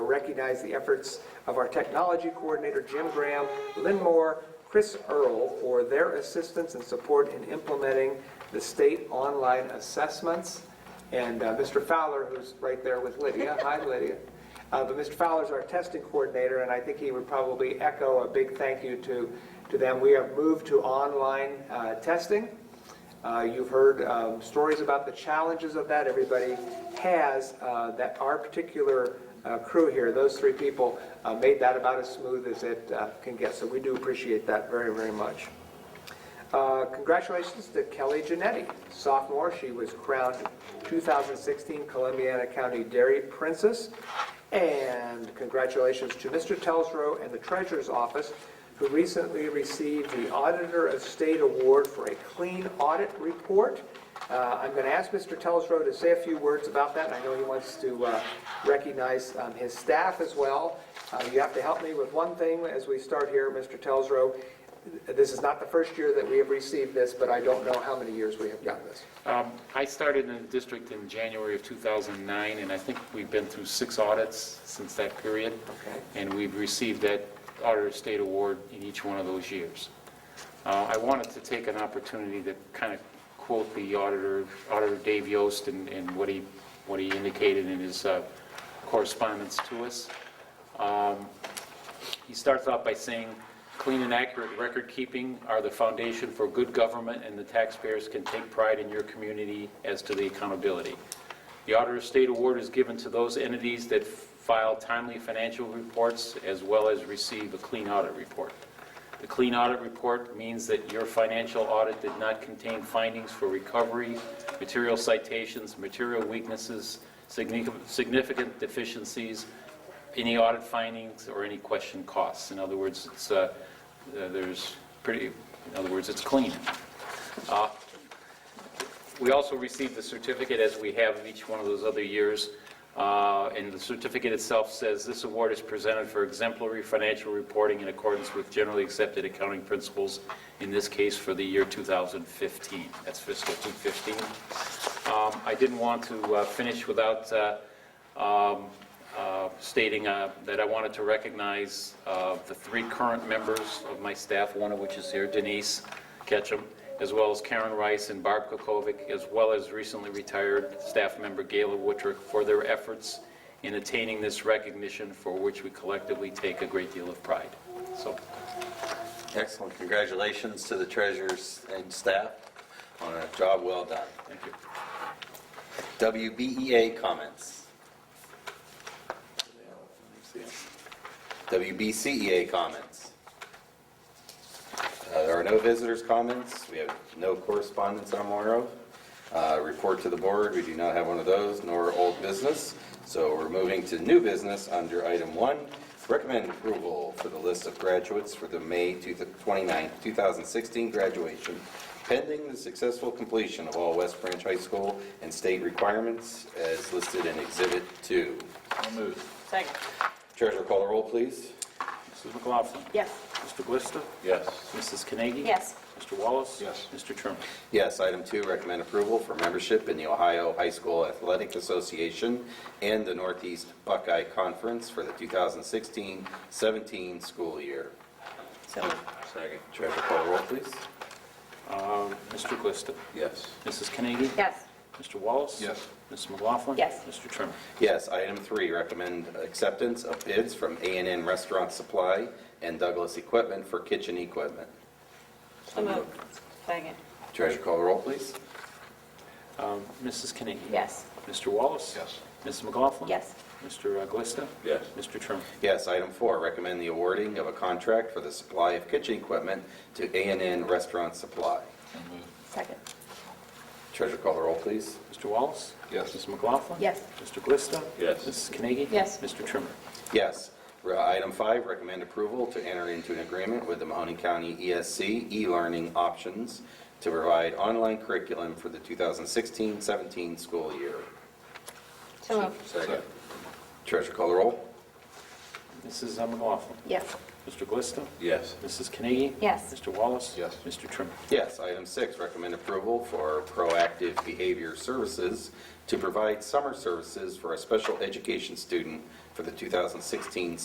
recognize the efforts of our technology coordinator, Jim Graham, Lynn Moore, Chris Earl, for their assistance and support in implementing the state online assessments. And uh, Mr. Fowler, who's right there with Lydia, hi Lydia. Uh, But Mr. Fowler's our testing coordinator, and I think he would probably echo a big thank you to, to them. We have moved to online uh, testing. Uh, You've heard um, stories about the challenges of that. Everybody has, uh, that our particular uh, crew here, those three people, uh, made that about as smooth as it uh, can get. So we do appreciate that very, very much. Uh, Congratulations to Kelly Genetti, sophomore. She was crowned 2016 Columbiana County Dairy Princess. And congratulations to Mr. Telsrow and the Treasurer's Office, who recently received the Auditor of State Award for a clean audit report. Uh, I'm going to ask Mr. Telsrow to say a few words about that. I know he wants to uh, recognize um, his staff as well. Uh, You have to help me with one thing as we start here, Mr. Telsrow. This is not the first year that we have received this, but I don't know how many years we have done this. Um, I started in the district in January of 2009, and I think we've been through six audits since that period. Okay. And we've received that Auditor of State Award in each one of those years. Uh, I wanted to take an opportunity to kind of quote the auditor, Auditor Dave Yost, and and what he, what he indicated in his uh, correspondence to us. He starts off by saying, "Clean and accurate record-keeping are the foundation for good government, and the taxpayers can take pride in your community as to the accountability. The Auditor of State Award is given to those entities that file timely financial reports as well as receive a clean audit report. The clean audit report means that your financial audit did not contain findings for recovery, material citations, material weaknesses, significant significant deficiencies, any audit findings or any question costs. In other words, it's, uh, uh, there's pretty, in other words, it's clean. Uh, We also received the certificate, as we have each one of those other years, uh, and the certificate itself says, "This award is presented for exemplary financial reporting in accordance with generally accepted accounting principles, in this case for the year 2015." That's fiscal 2015. Um, I didn't want to uh, finish without uh, um, uh, stating uh, that I wanted to recognize uh, the three current members of my staff, one of which is here, Denise Ketchum, as well as Karen Rice and Barb Kokovic, as well as recently retired staff member Gayla Woodrick, for their efforts in attaining this recognition, for which we collectively take a great deal of pride. So, Excellent. Congratulations to the treasurers and staff on a job well done. thank you. WBEA comments. WBCEA E comments. Uh, There are no visitors' comments. We have no correspondence I'm aware of. Uh, Report to the board, we do not have one of those, nor old business. So we're moving to new business under item one. Recommend approval for the list of graduates for the May 29, 2016 graduation, pending the successful completion of all West Branch High School and state requirements as listed in Exhibit 2. Second. Treasurer call the roll, please. Mrs. McLaughlin. Yes. Mr. Glista. Yes. Mrs. Carnegie. Yes. Mr. Wallace. Yes. Mr. Trimmer. Yes, item two, recommend approval for membership in the Ohio High School Athletic Association and the Northeast Buckeye Conference for the 2016-17 school year. So moved. Second. Treasurer call the roll, please. Uh, Mr. Glista. Yes. Mrs. Carnegie. Yes. Mr. Wallace? Yes. Mrs. McLaughlin? Yes. Mr. Trimmer? Yes, item three, recommend acceptance of bids from a and N Restaurant Supply and Douglas Equipment for kitchen equipment. So moved. Second. Treasurer call the roll, please. Um, Mrs. Carnegie? Yes. Mr. Wallace? Yes. Mrs. McLaughlin? Yes. Mr. Glista? Yes. Mr. Trimmer? Yes, item four, recommend the awarding of a contract for the supply of kitchen equipment to a and N Restaurant Supply. Second. Treasurer call the roll, please. Mr. Wallace? Yes. Mrs. McLaughlin? Yes. Mr. Glista? Yes. Mrs. Carnegie? Yes. Mr. Trimmer? Yes. Re- Item five, recommend approval to enter into an agreement with the Mahoney County ESC e-learning options to provide online curriculum for the 2016-17 school year. So moved. Second. Treasurer call the roll. Mrs. uh, McLaughlin. Yes. Mr. Glista. Yes. Mrs. Carnegie. Yes. Mr. Wallace. Yes. Mr. Trimmer. Yes, item six, recommend approval for proactive behavior services to provide summer services for a special education student for the 2016